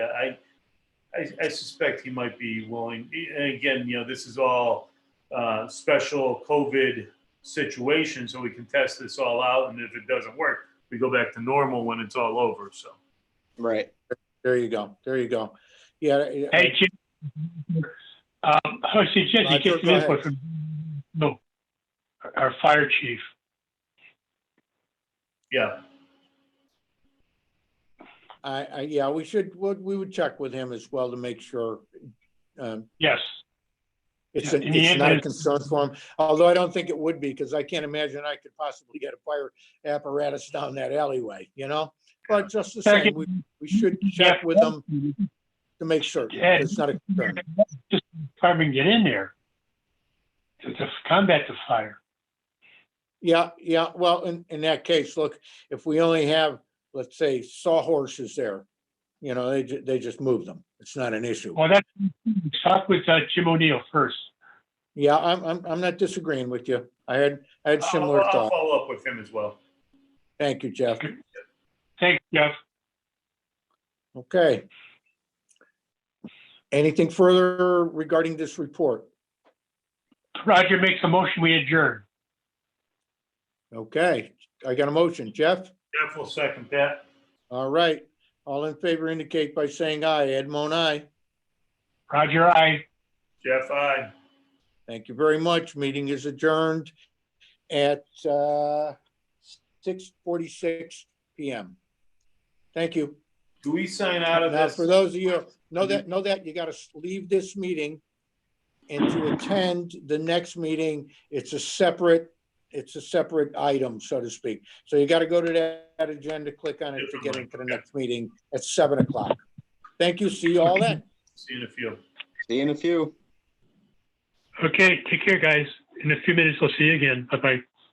I, I, I suspect he might be willing, and again, you know, this is all, uh, special COVID situation, so we can test this all out, and if it doesn't work, we go back to normal when it's all over, so. Right. There you go. There you go. Yeah. yeah, Hey, Jim. Um, I Uh, suggest you go- get some go input ahead. from, no, our fire chief. Yeah, I, I, yeah, we should, would, we would check with him as well to make sure. um, Yes, It's, Yeah, an- in the it's end, not a it's- concern for him, although I don't think it would be, because I can't imagine I could possibly get a fire apparatus down that alleyway, you know? But just the same, we, we should check with them to make sure Yeah. it's not a concern. Just fire can get in there to to combat the fire. Yeah, yeah, well, in, in that case, look, if we only have, let's say, sawhorses there, you know, they, ju- they just move them. It's not an issue. Well, that's, talk with uh, Jim O'Neill first. Yeah, I'm, I'm, I'm not disagreeing with you. I had, I had I'll, similar I'll thought. follow up with him as well. Thank you, Jeff. Thanks, Jeff. Okay. Anything further regarding this report? Roger makes a motion, we adjourn. Okay, I got a motion. Jeff? Jeff will second that. All right. All in favor indicate by saying aye. Edmond, aye. Roger, I. Jeff, I. Thank you very much. Meeting is adjourned at uh, 6:46 PM. Thank you. Do we sign out of Now, this? Mm-hmm. for those of you, know that, know that you gotta leave this meeting and to attend the next meeting, it's a separate, it's a separate item, so to speak. So you gotta go to that agenda, click on it to get into the next meeting at seven o'clock. Thank you. See you all then. See you in a few. See you in a few. Okay, take care, guys. In a few minutes, I'll see you again. Bye-bye.